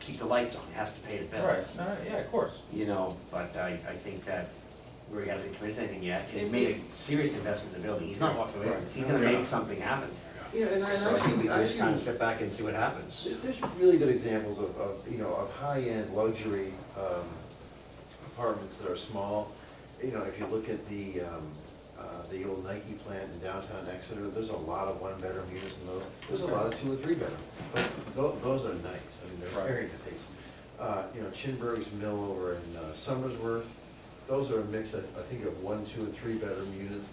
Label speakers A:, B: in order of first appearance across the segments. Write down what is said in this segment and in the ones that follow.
A: keep the lights on, has to pay the
B: All right,
A: bills.
B: all right, yeah, of course.
A: You know, but I, I think that where he hasn't committed anything yet, he's made a serious investment in the building, he's not walking away, from it. he's gonna make something happen.
C: You know, and I, and
A: So
C: I
A: I think we
C: see, I
A: just kind of
C: see,
A: sit back and see what happens.
C: there's- there's really good examples of, of, you know, of high-end luxury, um, apartments that are small. You know, if you look at the, um, uh, the old Nike plant in downtown Exeter, there's a lot of one-bedroom units in those, there's a lot of two or three-bedroom. But tho- those are nice, I mean, they're
B: Right.
C: very nice. Uh, you know, Chinburg's Mill over in uh, Somersworth, those are a mix, I, I think of one, two, and three-bedroom units,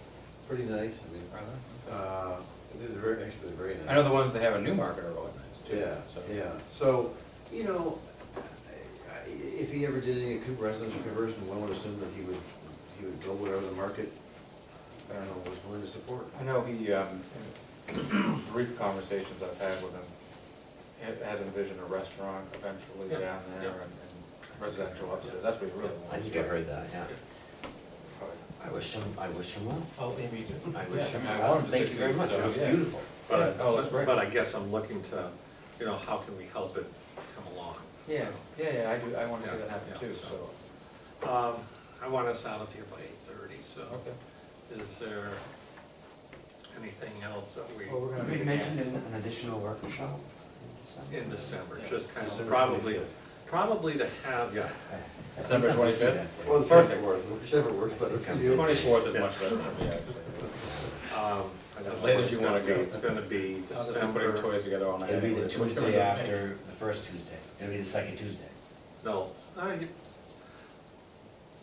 C: pretty nice, I mean, Uh, they're very, actually, they're very nice.
B: I know the ones they have in Newmarket are really nice too.
C: Yeah,
B: so-
C: yeah, so, you know, I- if he ever did any con- residential conversion, one would assume that he would, he would build whatever the market, I don't know, was willing to support.
B: I know he, um, in brief conversations I've had with him, had- had envisioned a restaurant eventually
D: Yeah,
B: down there and and residential upstairs, that's what he really wants.
A: I think I heard that, yeah.
B: Probably.
A: I wish him, I wish him well.
D: Oh, yeah, me too.
A: I
B: Yeah,
A: wish
B: I
A: him
B: mean, I
A: well,
B: wanted to
A: thank you very
B: succeed,
A: much, it
B: so,
A: was
B: yeah.
A: beautiful.
D: But,
B: Oh, that's great.
D: but I guess I'm looking to, you know, how can we help it come along?
B: Yeah, yeah, yeah, I do, I wanna see
D: Yeah,
B: that happen
D: yeah,
B: too,
D: so.
B: so,
D: Um, I want us out of here by eight thirty, so
B: okay.
D: is there anything else that we?
B: Well, we're gonna
A: Have
B: make
A: you
B: it
A: mentioned an an additional workshop in December?
D: In December, just kind of
A: December
D: probably,
A: 25th.
D: probably to have, yeah,
B: December twenty-fifth?
C: Well,
A: Well,
C: the perfect works, whichever works better for you.
B: Twenty-fourth is much better for me, actually.
D: um, I don't
B: Late
D: know what
B: if
D: it's
B: you
D: gonna
B: wanna
D: be.
B: go.
D: It's gonna be
B: Other than putting
D: December,
B: toys together all night.
A: It'll be the
B: anyway.
A: Tuesday after, the first Tuesday, it'll be the second Tuesday.
D: no, I,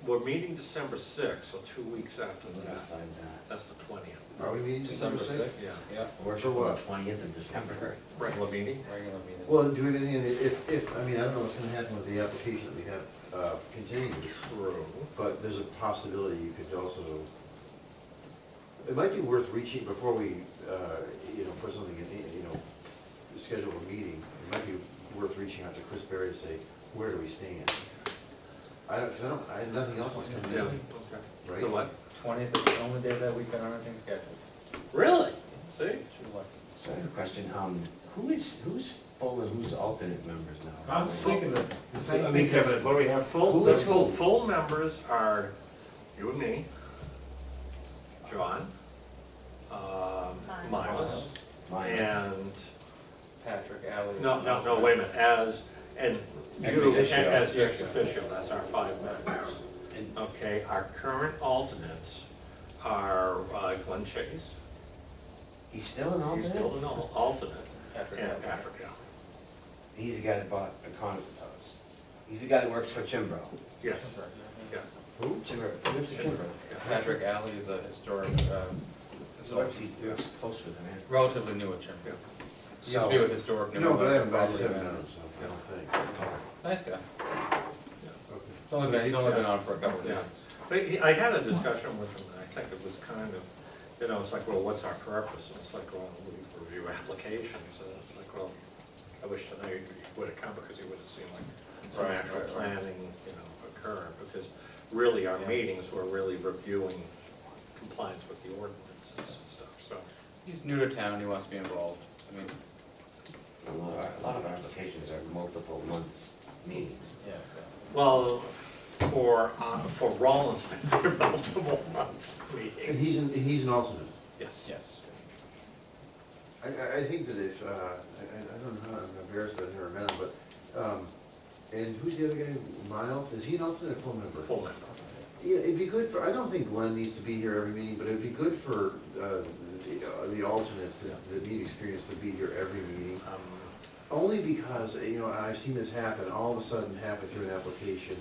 D: we're meeting December sixth, so two weeks after
A: We'll
D: that,
A: decide that.
D: that's the twentieth.
C: Are we meeting
B: December
C: December
B: sixth,
C: sixth?
D: yeah.
B: yeah.
A: Workshop on the
C: what?
A: twentieth of December.
D: Regular meeting?
B: Regular meeting.
C: Well, do we have anything, if, if, I mean, I don't know what's gonna happen with the application that we have, uh, continued,
D: True.
C: but there's a possibility you could also, it might be worth reaching before we, uh, you know, put something in, you know, schedule a meeting, it might be worth reaching out to Chris Berry to say, where do we stand? I don't, cause I don't, I, nothing else is coming
D: Yeah,
C: down,
D: okay.
C: right?
D: The what?
B: Twentieth is the only day that we've got anything scheduled.
D: Really? See?
B: Should look.
A: So I have a question, um, who is, who's full and who's alternate members now?
E: I was thinking the the
D: I
E: same
D: mean,
E: thing, Kevin, what do we have?
D: Full,
A: Who
D: the
A: is
D: full,
A: who?
D: full members are you and me, John, um,
F: Miles.
D: Miles,
A: Miles,
D: and,
B: Patrick, Ally.
D: no, no, no, wait a minute, as, and
B: Ex
D: you,
B: officio.
D: as the ex officio, that's our five members.
A: and
D: Okay, our current alternates are uh, Glenn Chase,
A: he's still an
D: he's
A: alternate?
D: still an al- alternate,
B: Patrick,
D: and
B: Ally.
D: Patrick Allen.
A: He's the guy that bought the Connors' house. He's the guy that works for Chimbro.
D: Yes,
B: That's right,
D: yeah.
B: yeah.
A: Who? Chimbro, he works for Chimbro.
D: yeah.
B: Patrick Alley is a historic, um,
A: He works, he works close with him, man.
B: relatively new at Chimbley. He used to
C: So-
B: be with historic. New
C: No, but I
B: England,
C: haven't, I just
B: probably,
C: haven't
B: uh,
C: done it, so I don't think.
B: Nice guy.
C: Okay.
B: He's only been, he's only been on for a couple of
D: Yeah,
B: years.
D: but he- I had a discussion with him, and I think it was kind of, you know, it's like, well, what's our purpose? And it's like, well, we review applications, and it's like, well, I wish to know you would have come, because you would have seen like some
B: Right,
D: actual
B: right, right.
D: planning, you know, occur, because really our
B: Yeah.
D: meetings were really reviewing compliance with the ordinances and stuff, so.
B: He's new to town, he wants to be involved. I mean,
A: A lot of our- a lot of our applications are multiple months meetings.
B: yeah.
D: Well, for, uh, for Rollins, there were multiple months
C: And
D: meetings.
C: he's, an- and he's an alternate.
D: Yes.
B: Yes.
C: I, I, I think that if, uh, I, I I don't know, I'm embarrassed that I never met him, but, um, and who's the other guy, Miles, is he an alternate or full member?
D: Full member.
C: Yeah, it'd be good for, I don't think Glenn needs to be here every meeting, but it'd be good for, uh, the, uh, the alternates that, that need experience to be here every meeting.
D: Um,
C: Only because, uh, you know, and I've seen this happen, all of a sudden happen through an application.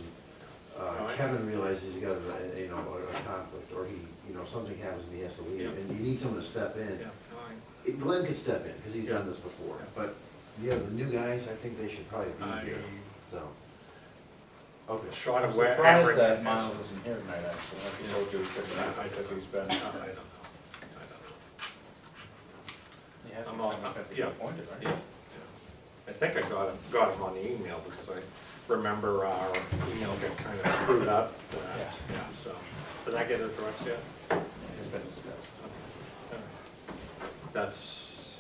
D: Oh,
C: Uh,
D: yeah.
C: Kevin realizes he's got a, a- you know, a a conflict, or he, you know, something happens and he has to leave,
D: Yeah.
C: and you need someone to step in.
D: Yeah, no, I-
C: It- Glenn could step in, because he's done this before,
D: Yeah.
C: but, yeah, the new guys, I think they should probably
D: I-
C: be here, so. Okay.
D: Short
B: I'm
D: of where Everett
B: surprised that
D: is.
B: Miles isn't here tonight, actually. Like he told you, he's been, I took he's been.
D: I don't know, I don't
B: He hasn't
D: I'm all-
B: come since he
D: yeah.
B: got appointed, right?
D: know. Yeah. I think I got, him- got him on the email because I remember our email got kind of screwed up. uh,
B: Yeah.
D: Yeah, so, did I get it addressed yet?
B: He's been discussed.
D: Okay. All right. That's,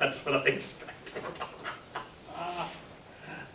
D: that's what I expected.